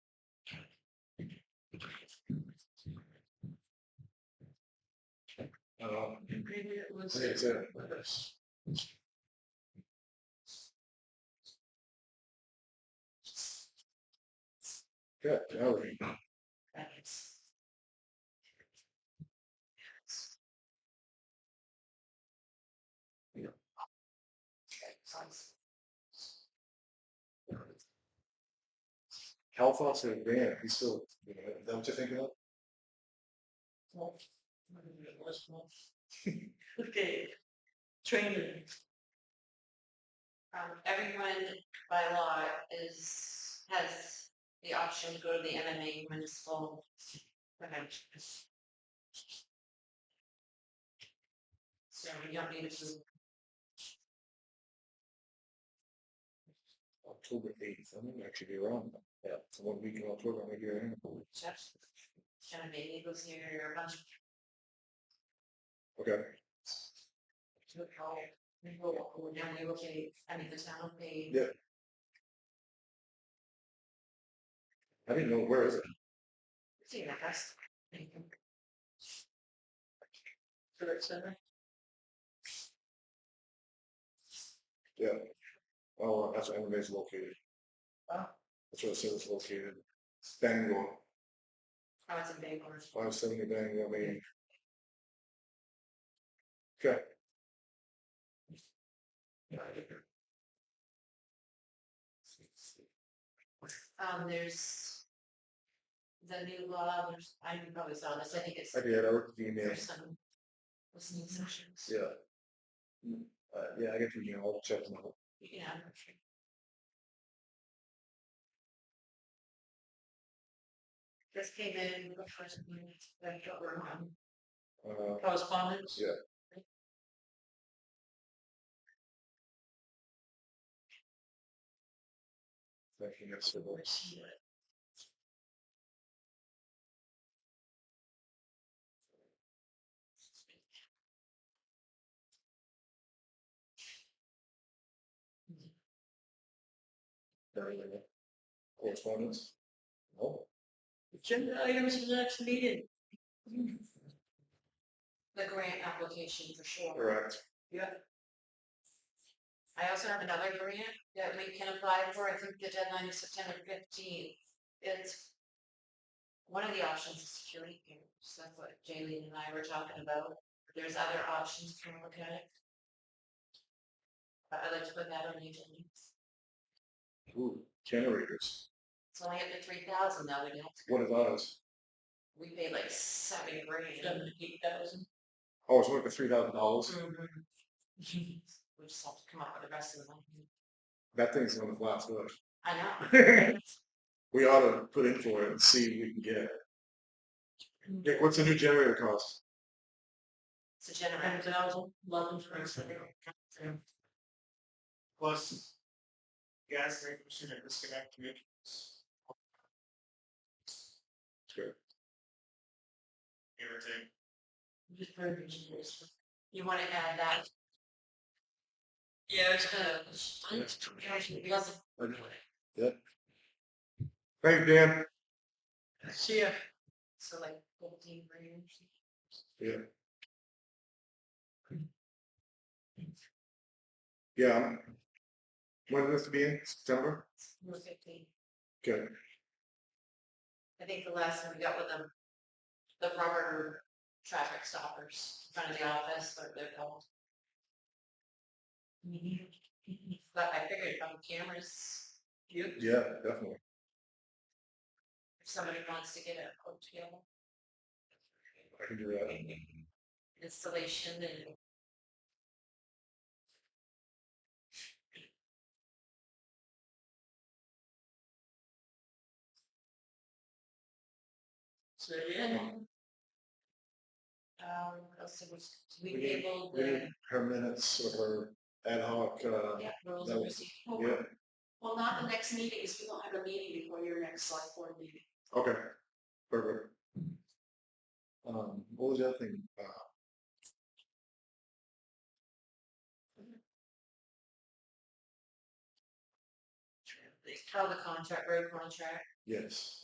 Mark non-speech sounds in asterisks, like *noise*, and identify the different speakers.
Speaker 1: know.
Speaker 2: Maybe it was.
Speaker 1: Like I said, Yeah, all right. Cal Foster and Dan, he's still, you know, is that what you're thinking
Speaker 3: *laughs*
Speaker 1: of?
Speaker 2: Okay, training.
Speaker 3: Um, everyone by law is, has the option to go to the MMA municipal convention. So you don't need to,
Speaker 1: October eighth, I might actually be wrong. Yeah. It's one week in October, I'm here.
Speaker 3: just, kind of maybe go see your bunch of
Speaker 1: Okay,
Speaker 3: people, people who normally locate, I mean, the town will pay.
Speaker 1: Yeah. I didn't know, where is it?
Speaker 3: See, I guess.
Speaker 2: Civic Center.
Speaker 1: Yeah. Oh, that's where MMA is located.
Speaker 2: Oh.
Speaker 1: That's where the service is located. Bangor,
Speaker 3: I was in Bangor.
Speaker 1: five seventy Bangor, Maine. Okay.
Speaker 3: Um, there's the new law, there's, I you probably saw this, I think it's.
Speaker 1: I did, I looked at the email.
Speaker 3: There's some listening sessions,
Speaker 1: Yeah. Mm, Uh, yeah, I get your email, I'll check them out.
Speaker 3: yeah. Just came in, the first meeting, that got wrong, um,
Speaker 1: Uh,
Speaker 3: correspondence.
Speaker 1: Yeah. thank you, that's the one. Correspondence? No.
Speaker 2: Agenda items in the next meeting.
Speaker 3: The grant application for sure.
Speaker 1: Correct.
Speaker 3: I also have another grant that we can apply for. I think the deadline is September fifteenth. It's one of the options is security cameras. That's what Jaylene and I were talking about. There's other options. Can we look at it? But I'd like to put that on the agenda.
Speaker 1: Ooh, generators.
Speaker 3: It's only up to three thousand now. They're gonna have to,
Speaker 1: What is ours?
Speaker 3: we paid like seven grand.
Speaker 2: Seventy-eight thousand.
Speaker 1: Oh, it's worth the three thousand dollars.
Speaker 3: Mhm. *laughs* We just have to come up with the rest of the money.
Speaker 1: That thing's gonna last us.
Speaker 3: I know.
Speaker 1: We ought to put in for it and see if we can get it.
Speaker 3: Mm.
Speaker 1: Nick, what's the new generator cost?
Speaker 3: It's a generator.
Speaker 2: Ten thousand, eleven for instance.
Speaker 4: Plus, gas rate machine and disconnect communications.
Speaker 1: Sure.
Speaker 4: give or take.
Speaker 2: Just for engineers.
Speaker 3: You wanna add that?
Speaker 2: Yeah, it's
Speaker 3: to- Because
Speaker 1: Thank you, Dan.
Speaker 2: See ya.
Speaker 3: So like fifteen grand.
Speaker 1: Yeah. I'm- When is this to be in? September?
Speaker 3: Or fifteen.
Speaker 1: Okay.
Speaker 3: I think the last one we got with them, the rubber traffic stoppers in front of the office, what they're called.
Speaker 2: Mm-hmm.
Speaker 3: But I figured on cameras,
Speaker 2: You.
Speaker 1: Yeah, definitely.
Speaker 3: if somebody wants to get a quote together,
Speaker 1: I can do that.
Speaker 3: installation and.
Speaker 2: So, yeah.
Speaker 3: Um, what else did we,
Speaker 1: We
Speaker 3: we
Speaker 1: need-
Speaker 3: tabled
Speaker 1: We
Speaker 3: the
Speaker 1: need her minutes or her ad hoc, uh,
Speaker 3: yeah, rules
Speaker 1: that
Speaker 3: and
Speaker 1: was-
Speaker 3: procedures.
Speaker 1: yeah,
Speaker 3: Well, not the next meeting, because we don't have a meeting before your next select board meeting.
Speaker 1: Okay, perfect. Um, what was the other thing? Uh,
Speaker 3: Oh, the contract, road contract.
Speaker 1: yes.